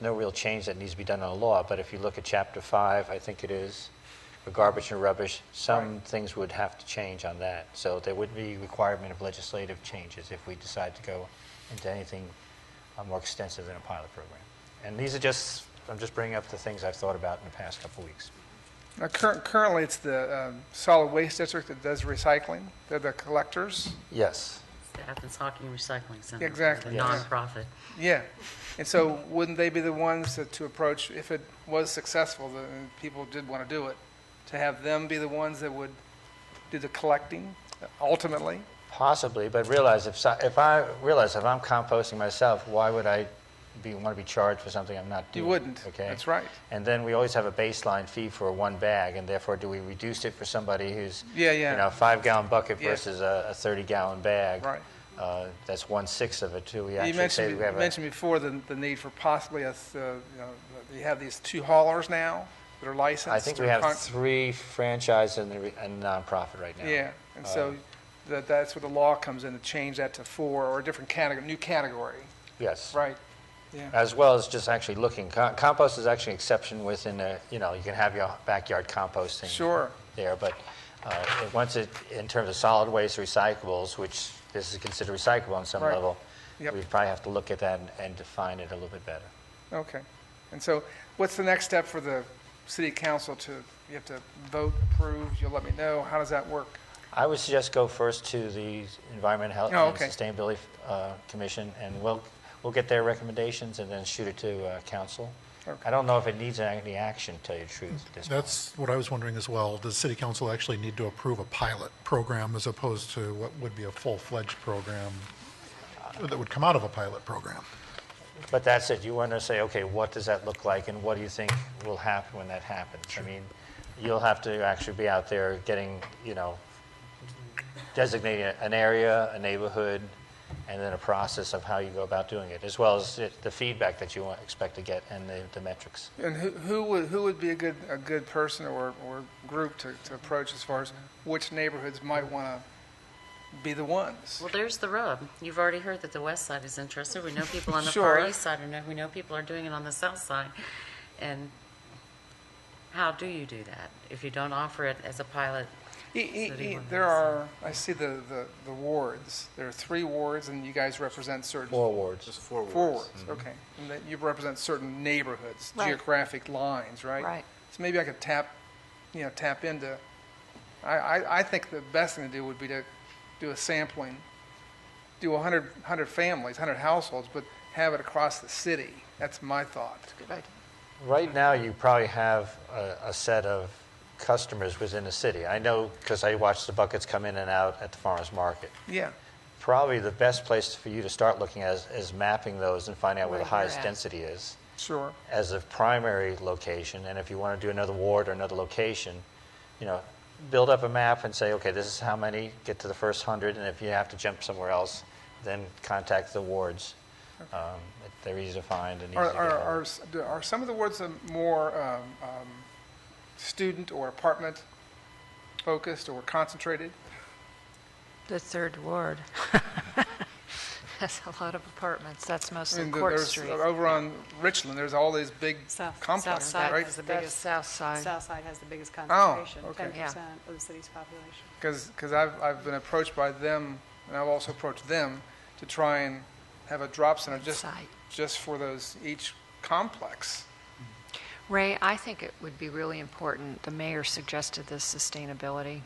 no real change that needs to be done on the law, but if you look at chapter five, I think it is, for garbage and rubbish, some things would have to change on that. So there would be requirement of legislative changes if we decide to go into anything uh, more extensive than a pilot program. And these are just, I'm just bringing up the things I've thought about in the past couple weeks. Now, cur- Currently, it's the um, solid waste district that does recycling. They're the collectors. Yes. The Athens Hockey Recycling Center. Exactly, The yeah. nonprofit. Yeah. And so wouldn't they be the ones to- to approach, if it was successful, the- and people did want to do it, to have them be the ones that would do the collecting ultimately? Possibly, but realize if, so- if I, realize if I'm composting myself, why would I be, want to be charged for something I'm not doing? You wouldn't. Mm. Okay? That's right. And then we always have a baseline fee for one bag, and therefore, do we reduce it for somebody who's, Yeah, you know, a yeah, five-gallon bucket Yeah. versus a a 30-gallon bag? right. Uh, That's one-sixth of it, too. We You actually say mentioned, we have a, mentioned before the, the need for possibly a, th- uh, you know, you have these two haulers now that are licensed. I think we or have con- three franchise and the re- and nonprofit right now. Yeah, Uh, and so Um, that, that's where the law comes in to change that to four or a different category, new category, Yes. right? Yeah, as well as just actually looking. Com- Compost is actually an exception within a, you know, you can have your backyard composting. Sure. There, but uh, it- once it, in terms of solid waste recyclables, which this is considered recyclable on some Right. level, we Yep. probably have to look at that and- and define it a little bit better. okay. And so what's the next step for the city council to, you have to vote, approve, you'll let me know, how does that work? I would suggest go first to the Environment, Health, Oh, and okay. Sustainability uh, Commission, and we'll, we'll get their recommendations and then shoot it to uh, council. Okay. I don't know if it needs any action, to tell you the truth, at this point. That's what I was wondering as well. Does city council actually need to approve a pilot program as opposed to what would be a full-fledged program that would come out of a pilot program? But that's it, you want to say, okay, what does that look like, and what do you think will happen when that happens? I mean, you'll have to actually be out there getting, you know, designating an area, a neighborhood, and then a process of how you go about doing it, as well as it- the feedback that you want- expect to get and the the metrics. And who, who would, who would be a good, a good person or, or group to, to approach as far as which neighborhoods might want to be the ones? Well, there's the rub. You've already heard that the west side is interested. We know people on the far Sure. east side, and we know people are doing it on the south side. And how do you do that if you don't offer it as a pilot? E- e- City e- one There has are, I see the, the, the wards, there are three wards and you guys represent certain Four wards. Forwards, okay. And that you represent certain neighborhoods, Right. geographic lines, right? Right. So maybe I could tap, you know, tap into, I, I, I think the best thing to do would be to do a sampling, do 100, 100 families, 100 households, but have it across the city. That's my thought. Right now, you probably have a a set of customers within the city. I know, because I watch the buckets come in and out at the farmer's market. Yeah, probably the best place for you to start looking at is, is mapping those and finding out where, Where the they're highest at. density is sure. as a primary location. And if you want to do another ward or another location, you know, build up a map and say, okay, this is how many, get to the first hundred, and if you have to jump somewhere else, then contact the wards. Um, they're easy to find and easy Are, to get are, hold are, of. s- do- are some of the words um, more um, um, student or apartment focused or concentrated? The third ward. That's a lot of apartments. That's I mostly mean, Court there's- uh, Street. Over on Richland, there's all these big South- south complexes, side right? is the That's biggest- South Side. Southside has the biggest concentration, okay. ten Yeah. percent of the city's population. Because, I've, I've been approached by them, and I've also approached them to try and have a drop center just, Site. just for those, each complex. Ray, I think it would be really important, the mayor suggested this sustainability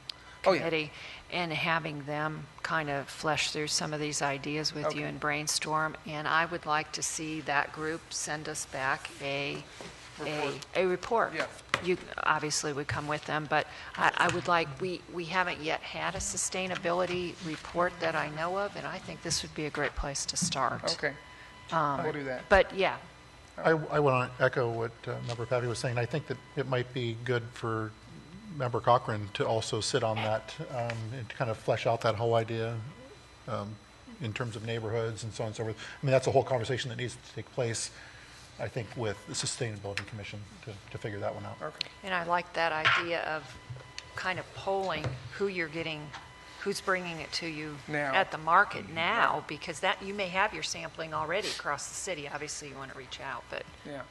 Oh, yeah. committee, and having them kind of flesh through some of these ideas with Okay. you and brainstorm. And I would like to see that group send us back a, a, Report. a report. Yeah. You obviously would come with them, but I, I would like, we, we haven't yet had a sustainability report that I know of, and I think this would be a great place to start. Okay, Um, we'll do that. But, yeah, I, I want to echo what uh, Member Pappy was saying. I think that it might be good for Member Cochran to also sit on that um, and to kind of flesh out that whole idea um, in terms of neighborhoods and so on and so forth. I mean, that's a whole conversation that needs to take place, I think, with the Sustainability Commission to, to figure that one out. Okay. And I like that idea of kind of polling who you're getting, who's bringing it to you Now. at the market now, because that, you may have your sampling already across the city. Obviously, you want to reach out, but. yeah.